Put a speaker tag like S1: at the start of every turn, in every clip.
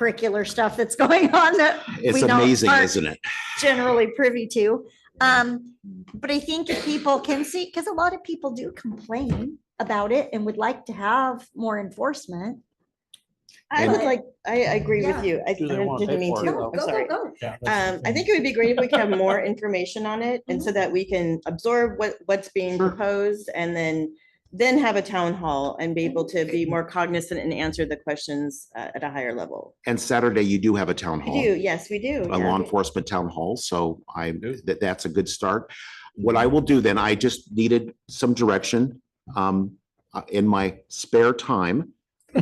S1: extracurricular stuff that's going on that
S2: It's
S1: We don't
S2: amazing,
S1: park.
S2: isn't it?
S1: generally privy to. Um, but I think if people can see, because a lot of people do complain about it and would like to have more enforcement.
S3: I
S1: And-
S3: would like, I agree
S1: Yeah.
S3: with you. I
S4: Do they
S3: didn't
S4: wanna
S3: didn't
S4: pay
S3: mean
S4: for it,
S3: to,
S4: though?
S3: I'm sorry.
S1: go.
S4: Yeah, that's the
S3: Um, I
S4: thing.
S3: think it would be great if we could have more information on it and so that we can absorb what, what's being
S2: Sure.
S3: proposed and then, then have a town hall and be able to be more cognizant and answer the questions uh, at a higher level.
S2: And Saturday, you do have a town
S3: We
S2: hall.
S3: do, yes, we do.
S2: a
S3: yeah.
S2: law enforcement town hall, so I,
S4: Do.
S2: that, that's a good start. What I will do then, I just needed some direction. Um, uh, in my spare time,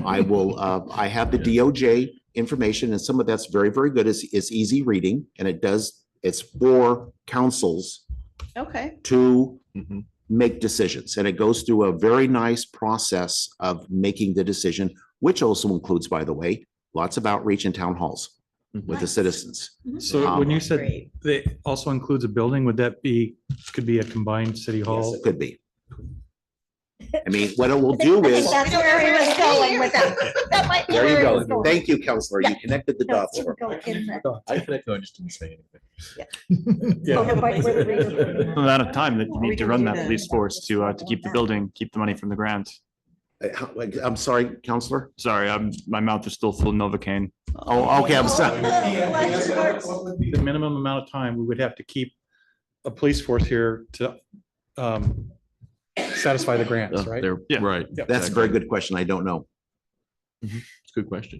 S2: I will, uh, I have the DOJ information and some of that's very, very good. It's, it's easy reading and it does, it's for councils
S3: Okay,
S2: to
S4: Mhm.
S2: make decisions. And it goes through a very nice process of making the decision, which also includes, by the way, lots of outreach in town halls with the
S1: Nice.
S2: citizens.
S5: So when you said
S3: great.
S5: that also includes a building, would that be, could be a combined city hall?
S2: Could be. I mean, what it will
S1: I think-
S2: do
S1: I think
S2: is,
S1: That's where he was going with that. That might be
S2: there you
S1: where he was
S2: go.
S1: going.
S2: Thank you, counselor. You
S1: Yeah.
S2: connected the
S1: No,
S2: dots.
S1: it didn't go in there.
S4: I think I just didn't say
S1: Okay, but where the radio-
S4: anything.
S6: the amount of time that you
S3: We
S6: need to
S3: can
S6: run
S3: do
S6: that
S3: that.
S6: police force to, uh, to keep the building, keep the money from the grant.
S2: Uh, how- like, I'm sorry, counselor.
S6: Sorry, I'm, my mouth is still full of Novocaine.
S2: Oh, okay, I'm sorry.
S1: Oh,
S5: The minimum amount of time we would have to keep a police force here to um, satisfy the grants,
S6: Oh,
S5: right?
S6: Yeah.
S7: Right.
S5: Yeah.
S2: That's a very good question. I don't know.
S7: It's a good question.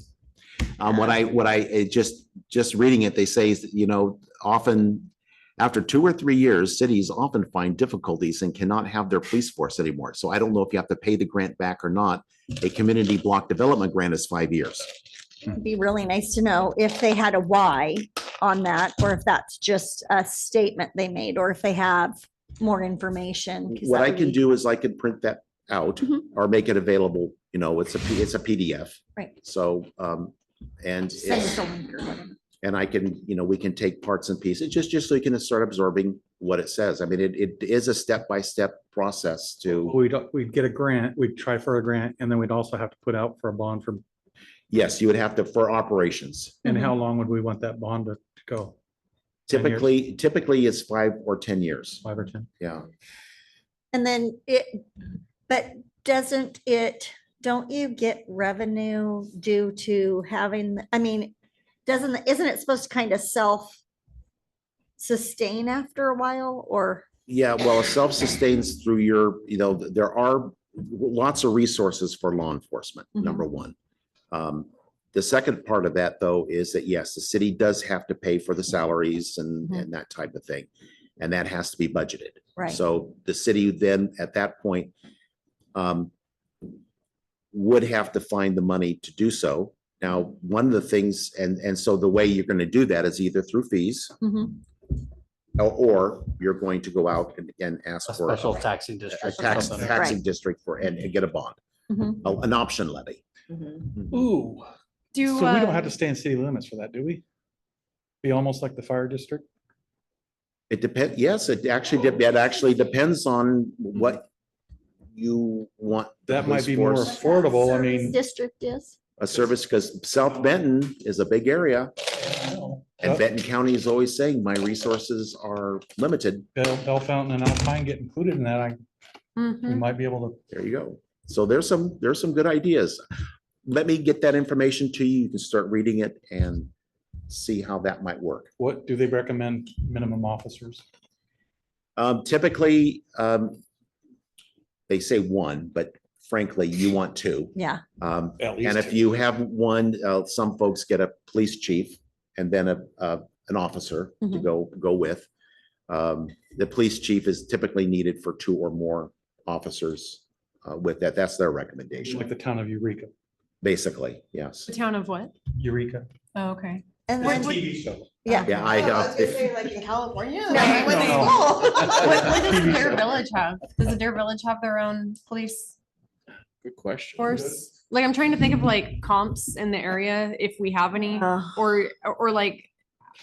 S2: Um, what I, what I, it just, just reading it, they say, is that, you know, often after two or three years, cities often find difficulties and cannot have their police force anymore. So I don't know if you have to pay the grant back or not. A community block development grant is five years.
S1: It'd Be really nice to know if they had a why on that, or if that's just a statement they made, or if they have more information. 'cause
S2: What
S1: that
S2: I
S1: would
S2: can
S1: be-
S2: do is I can print that out
S1: Mhm.
S2: or make it available, you know, it's a, P- it's a PDF.
S1: Right.
S2: So, um, and,
S1: Send us
S2: it's-
S1: a link or whatever.
S2: and I can, you know, we can take parts and pieces, just, just so you can start absorbing what it says. I mean, it, it is a step-by-step process to,
S5: We'd, we'd get a grant, we'd try for a grant, and then we'd also have to put out for a bond for,
S2: yes, you would have to, for operations.
S5: and how long would we want that bond to to go? 10 years.
S2: Typically, typically it's five or 10 years.
S5: Five or 10?
S2: Yeah.
S1: And then it, but doesn't it, don't you get revenue due to having, I mean, doesn't, isn't it supposed to kind of self sustain after a while or?
S2: Yeah, well, it self-sustains through your, you know, there are lots of resources for law enforcement,
S1: Mhm.
S2: number one. Um, The second part of that, though, is that yes, the city does have to pay for the salaries and,
S1: Mhm.
S2: and that type of thing. And that has to be budgeted.
S1: Right.
S2: So the city then, at that point, um, would have to find the money to do so. Now, one of the things, and, and so the way you're going to do that is either through fees,
S1: Mhm.
S2: or- Or you're going to go out and, and ask
S4: A
S2: for
S4: special
S2: a
S4: taxing district. or
S2: tax,
S4: something.
S2: taxing
S1: Right.
S2: district for, and and get a bond,
S1: Mhm.
S2: a- an option levy.
S3: Mhm.
S5: Ooh. So
S8: Do,
S5: we don't have
S8: um,
S5: to stay in city limits for that, do we? Be almost like the fire district?
S2: It depends, yes, it actually, de- it actually depends on what you want. the
S5: That might
S2: police
S5: be more
S2: force-
S5: affordable. I mean.
S1: District is.
S2: A service, because South Benton is a big area and
S5: Bell
S2: Benton County is always saying my resources are limited.
S5: Bell Fountain and Alpine get included in that. I,
S1: mm-hmm.
S5: we
S1: Hmm.
S5: might be able to
S2: There you go. So there's some, there's some good ideas. Let me get that information to you. You can start reading it and see how that might work.
S5: What do they recommend minimum officers?
S2: Um, typically, um, they say one, but frankly, you want two.
S1: Yeah.
S2: Um,
S5: At
S2: and if you have one, uh, some folks get a police chief and then a, uh, an officer to
S8: Mm-hmm.
S1: Mhm.
S2: go, go with. Um, the police chief is typically needed for two or more officers, uh, with that. That's their
S5: Like
S2: recommendation,
S5: the town of Eureka,
S2: basically, yes.
S8: the town of what?
S5: Eureka.
S8: Oh, okay.
S1: And then,
S5: TV show.
S1: yeah.
S2: Yeah, I,
S3: Oh, was
S2: uh,
S3: gonna
S2: if-
S3: say, Like in California?
S8: No,
S3: like, went to
S5: no.
S3: school.
S8: What, what does Dare Village have? Does the Dare Village have their own police
S7: Good question.
S8: force? Like, I'm trying to think of like comps in the area, if we have any,
S1: Uh,
S8: or, or like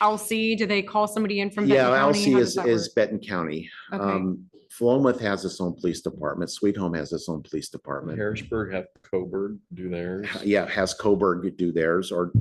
S8: LC, do they call somebody in from?
S2: yeah,
S8: Benton County?
S2: LC
S8: How
S2: is,
S8: does that
S2: is Benton County.
S8: work? Okay.
S2: Um, Philomath has its own police department. Sweet Home has its own police department.
S7: Harrisburg have Coburg do theirs.
S2: Yeah, has Coburg do theirs or